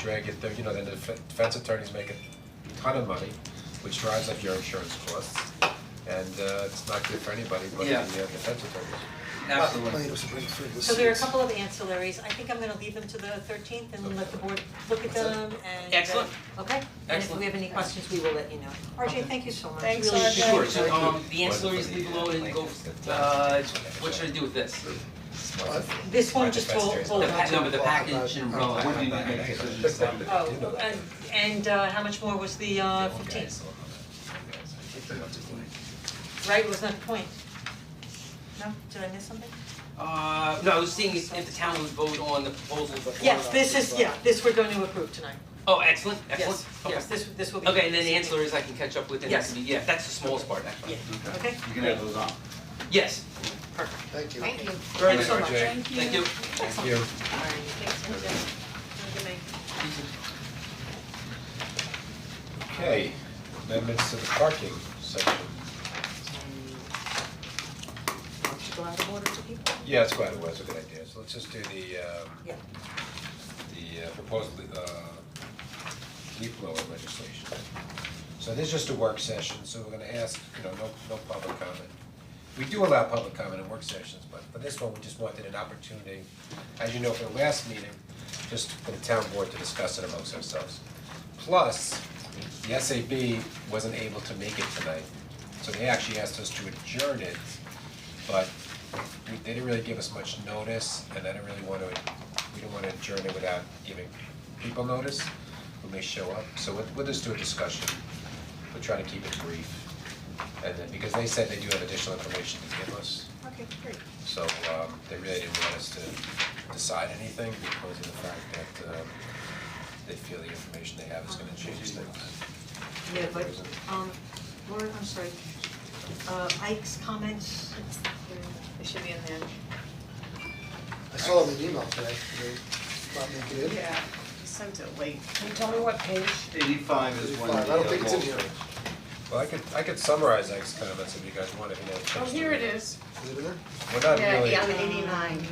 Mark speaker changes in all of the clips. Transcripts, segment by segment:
Speaker 1: drag it through, you know, then the defen- defense attorneys make a ton of money, which drives up your insurance costs. And uh it's not good for anybody, but the
Speaker 2: Yeah.
Speaker 1: uh, defense attorneys.
Speaker 2: Absolutely.
Speaker 3: So there are a couple of ancillaries, I think I'm gonna leave them to the thirteenth and let the board look at them and. uh,
Speaker 2: Excellent.
Speaker 3: Okay, and if
Speaker 2: Excellent.
Speaker 3: we have any questions, we will let you know. RJ, thank you so much, really
Speaker 4: Thanks,
Speaker 3: appreciate
Speaker 4: RJ.
Speaker 3: it.
Speaker 2: Sure, so um the ancillaries
Speaker 1: But-
Speaker 2: leave loaded and go, uh what should I do with this?
Speaker 3: This one just hold hold
Speaker 2: The
Speaker 3: on to.
Speaker 2: pa- no, but the package and umbrella, when do you make decisions?
Speaker 3: Oh, and and uh how much more was the uh fifteen, right, was that the point? No, did I miss something?
Speaker 2: Uh, no, I was seeing if the town would vote on the proposal before.
Speaker 3: Yes, this is, yeah, this we're going to approve tonight,
Speaker 2: Oh, excellent, excellent,
Speaker 3: yes,
Speaker 2: okay.
Speaker 3: yes, this this will be.
Speaker 2: Okay, and then the ancillaries I can catch up with and that
Speaker 3: Yes.
Speaker 2: can be, yeah, that's the smallest part, actually.
Speaker 3: Yeah, okay,
Speaker 5: You can have those on.
Speaker 2: Yes,
Speaker 3: perfect,
Speaker 6: Thank you.
Speaker 4: Thank you.
Speaker 2: very
Speaker 3: Thanks so
Speaker 2: good,
Speaker 3: much.
Speaker 4: Thank you.
Speaker 2: thank you.
Speaker 1: Thank you.
Speaker 3: Have a good night.
Speaker 1: Okay, amendments to the parking section.
Speaker 3: Want to go out of order to people?
Speaker 1: Yeah, that's quite, that's a good idea, so let's just do the um
Speaker 3: Yeah.
Speaker 1: the uh, proposed uh leaf blower legislation. So this is just a work session, so we're gonna ask, you know, no no public comment. We do allow public comment in work sessions, but for this one, we just wanted an opportunity, as you know, for the last meeting, just for the town board to discuss it amongst ourselves. Plus, the SAB wasn't able to make it tonight, so they actually asked us to adjourn it, but we, they didn't really give us much notice, and I didn't really wanna, we didn't wanna adjourn it without giving people notice who may show up, so we'll, we'll just do a discussion, we'll try to keep it brief. And then, because they said they do have additional information to give us,
Speaker 3: Okay, great.
Speaker 1: so, um, they really didn't want us to decide anything because of the fact that, um, they feel the information they have is gonna change things.
Speaker 3: Yeah, but, um, Laura, I'm sorry, uh, Ike's comments,
Speaker 4: It should be in there.
Speaker 6: I saw them in email today, they thought they could.
Speaker 4: Yeah, he sent it late.
Speaker 7: Can you tell me what page?
Speaker 5: Eighty-five is one of
Speaker 6: Eighty-five, I don't think it's in
Speaker 5: the,
Speaker 6: here.
Speaker 1: Well, I could, I could summarize Ike's comments if you guys want, if you have a
Speaker 4: Oh,
Speaker 1: chance to
Speaker 4: here it
Speaker 1: read
Speaker 4: is.
Speaker 6: Is it in there?
Speaker 1: We're not
Speaker 4: Yeah,
Speaker 1: Oh, really,
Speaker 4: yeah, on eighty-nine.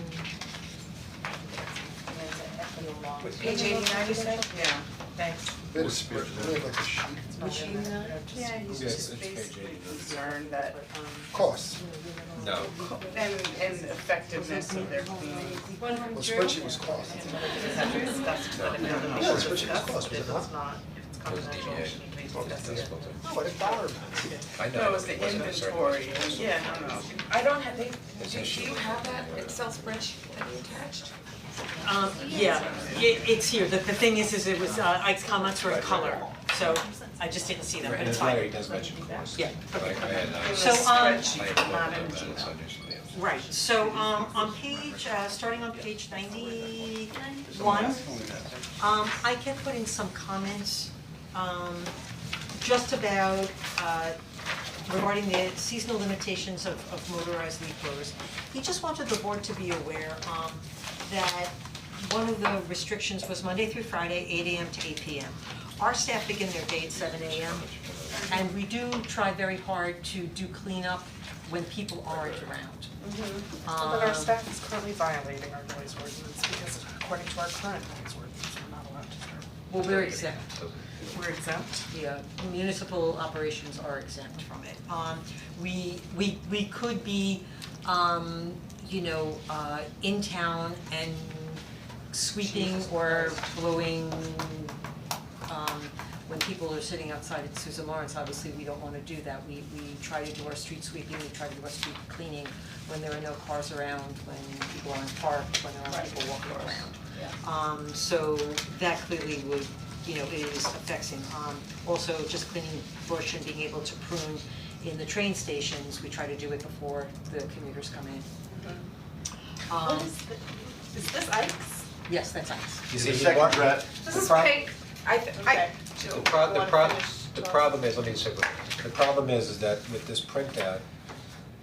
Speaker 7: Page eighty-nine, you said?
Speaker 4: Yeah, thanks.
Speaker 6: Wait a second, we have like a sheet.
Speaker 3: which you, uh,
Speaker 4: Yeah, he's
Speaker 1: Yes,
Speaker 4: just
Speaker 1: it's page
Speaker 4: basically
Speaker 1: 89.
Speaker 4: concerned that,
Speaker 6: Cost,
Speaker 1: no,
Speaker 4: and, and effectiveness of their cleaning.
Speaker 6: well, spreadsheet was cost.
Speaker 4: Because that's discussed, but if it doesn't
Speaker 6: Yeah,
Speaker 4: work,
Speaker 6: it's what you
Speaker 4: discussed,
Speaker 6: cost, was it
Speaker 4: if
Speaker 6: not?
Speaker 4: it's not, if it's
Speaker 1: It was
Speaker 4: confidential,
Speaker 1: DBA.
Speaker 4: it shouldn't be
Speaker 1: Well, that's
Speaker 4: discussed.
Speaker 1: difficult to-
Speaker 6: What a dollar.
Speaker 1: I know,
Speaker 4: No, it
Speaker 1: it
Speaker 4: was
Speaker 1: wasn't
Speaker 4: the
Speaker 1: a certain-
Speaker 4: inventory, and- yeah, I don't know.
Speaker 7: I don't have, they,
Speaker 1: It's
Speaker 7: do, do
Speaker 1: actually-
Speaker 7: you have that Excel spreadsheet that you attached?
Speaker 3: Um, yeah, it, it's here, the, the thing is, is it was, uh, Ike's comments were in color, so I just didn't see them,
Speaker 1: Right,
Speaker 3: but it's
Speaker 1: that's why
Speaker 3: fine.
Speaker 1: he does mention cost.
Speaker 3: Yeah.
Speaker 1: Like, I had, I.
Speaker 3: So, um,
Speaker 1: I had
Speaker 4: not
Speaker 1: looked
Speaker 4: in
Speaker 1: at that,
Speaker 4: Gmail.
Speaker 1: so I initially answered.
Speaker 3: Right, so, um, on page, uh, starting on page ninety-one, um, I can put in some comments, um, just about, uh, regarding the seasonal limitations of, of motorized leaf blowers. He just wanted the board to be aware, um, that one of the restrictions was Monday through Friday, eight AM to eight PM. Our staff begin their day at seven AM, and we do try very hard to do cleanup when people aren't around.
Speaker 4: But
Speaker 3: Um,
Speaker 4: our staff is currently violating our noise ordinance because according to our current noise ordinance, we're not allowed to serve.
Speaker 3: Well, we're exempt,
Speaker 4: We're exempt?
Speaker 3: yeah, municipal operations are exempt from it. Um, we, we, we could be, um, you know, uh, in town and sweeping or blowing, um, when people are sitting outside at Susan Lawrence, obviously, we don't wanna do that. We, we try to do our street sweeping, we try to do our street cleaning when there are no cars around, when people aren't parked, when there aren't people walking around. Um so that clearly would, you know, is affecting, um also just cleaning bush and being able to prune in the train stations, we try to do it before the commuters come in. Um,
Speaker 4: Is this Ike's?
Speaker 3: yes, that's nice.
Speaker 1: You
Speaker 5: the
Speaker 1: see, he
Speaker 5: second
Speaker 1: walked,
Speaker 5: draft,
Speaker 4: This
Speaker 1: The
Speaker 4: is
Speaker 1: prob-
Speaker 4: pink.
Speaker 7: I, th- I,
Speaker 4: Okay.
Speaker 1: the pro, the
Speaker 4: Wanna
Speaker 1: pro,
Speaker 4: finish
Speaker 1: the
Speaker 4: twelve?
Speaker 1: problem is, let me say, the problem is, is that with this printout,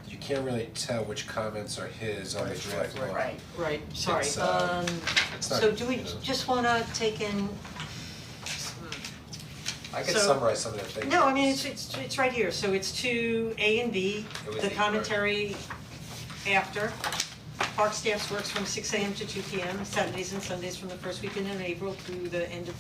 Speaker 1: you can't really tell which comments are his on the draft law.
Speaker 4: Right.
Speaker 3: Right, sorry,
Speaker 1: It's, uh,
Speaker 3: um,
Speaker 1: It's not,
Speaker 3: so do
Speaker 1: you
Speaker 3: we
Speaker 1: know,
Speaker 3: just wanna take in,
Speaker 1: I could
Speaker 3: so-
Speaker 1: summarize some of the things.
Speaker 3: no, I mean, it's it's it's right here, so it's two A and B,
Speaker 1: It was
Speaker 3: the
Speaker 1: the-
Speaker 3: commentary after. park staffs works from six AM to two PM, Saturdays and Sundays from the first weekend in April through the end of